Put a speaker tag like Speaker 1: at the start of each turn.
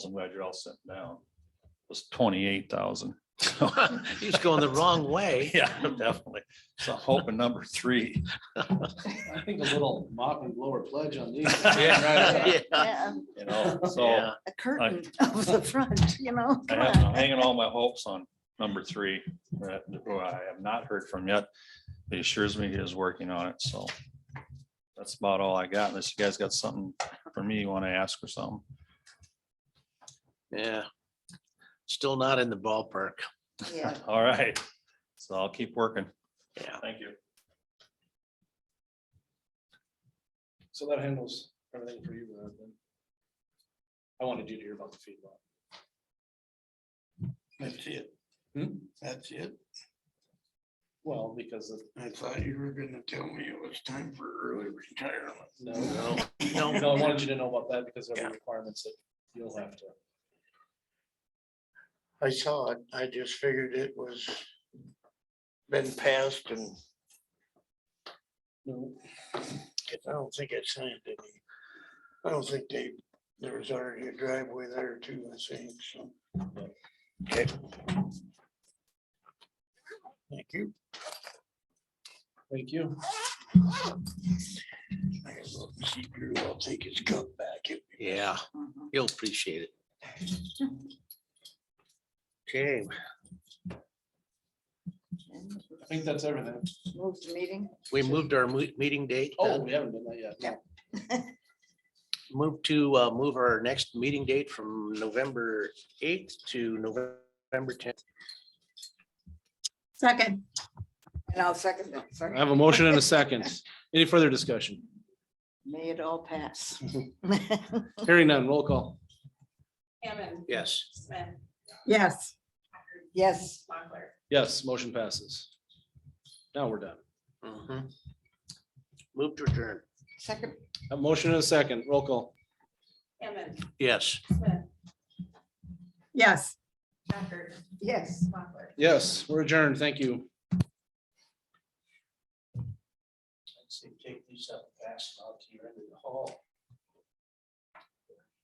Speaker 1: I'm glad you're all sitting down. Was twenty-eight thousand.
Speaker 2: He's going the wrong way.
Speaker 1: Yeah, definitely. So I'm hoping number three.
Speaker 3: I think a little mop and blower pledge on these.
Speaker 1: Yeah.
Speaker 2: Yeah.
Speaker 4: Yeah, um,
Speaker 1: You know, so
Speaker 2: Yeah.
Speaker 4: A curtain of the front, you know.
Speaker 1: I
Speaker 4: come
Speaker 1: have,
Speaker 4: on.
Speaker 1: I'm hanging all my hopes on number three, that- who I have not heard from yet. He assures me he is working on it, so. That's about all I got, unless you guys got something for me you want to ask or something.
Speaker 2: Yeah. Still not in the ballpark.
Speaker 4: Yeah.
Speaker 1: All right, so I'll keep working.
Speaker 2: Yeah.
Speaker 1: Thank you.
Speaker 3: So that handles everything for you, Brad, then. I wanted you to hear about the feedlot.
Speaker 5: That's it.
Speaker 3: Hmm?
Speaker 5: That's it.
Speaker 3: Well, because of,
Speaker 5: I thought you were gonna tell me it was time for early retirement.
Speaker 3: no,
Speaker 2: No, no,
Speaker 3: no, no, I wanted you to know about that because of the
Speaker 5: Yeah.
Speaker 3: requirements that you'll have to.
Speaker 5: I saw it. I just figured it was been passed and
Speaker 3: No,
Speaker 5: I don't think I signed any. I don't think they, there was already a driveway there too, I think, so. Okay. Thank you.
Speaker 3: Thank you.
Speaker 5: I gotta go and see Drew. I'll take his cup back.
Speaker 2: Yeah,
Speaker 4: Mhm.
Speaker 2: you'll appreciate it. Okay,
Speaker 4: And
Speaker 3: I think that's everything.
Speaker 4: Move the meeting.
Speaker 2: we moved our mo- meeting date.
Speaker 3: Oh,
Speaker 2: then.
Speaker 3: we haven't done that yet.
Speaker 4: Yeah.
Speaker 2: Move to uh, move our next meeting date from November eighth to November tenth.
Speaker 4: Second. And I'll second that,
Speaker 3: I
Speaker 4: sorry.
Speaker 3: have a motion and a second. Any further discussion?
Speaker 4: May it all pass.
Speaker 3: Hearing none, roll call.
Speaker 6: Hammond.
Speaker 2: Yes.
Speaker 6: Smith.
Speaker 4: Yes. Yes.
Speaker 6: Mochler.
Speaker 3: Yes, motion passes. Now we're done.
Speaker 2: Mhm. Move to adjourn.
Speaker 4: Second.
Speaker 3: A motion and a second, roll call.
Speaker 6: Hammond.
Speaker 2: Yes.
Speaker 6: Smith.
Speaker 4: Yes.
Speaker 6: Packard.
Speaker 4: Yes.
Speaker 6: Mochler.
Speaker 3: Yes, we're adjourned. Thank you.
Speaker 2: I'd say take these up fast, I'll to your end of the hall.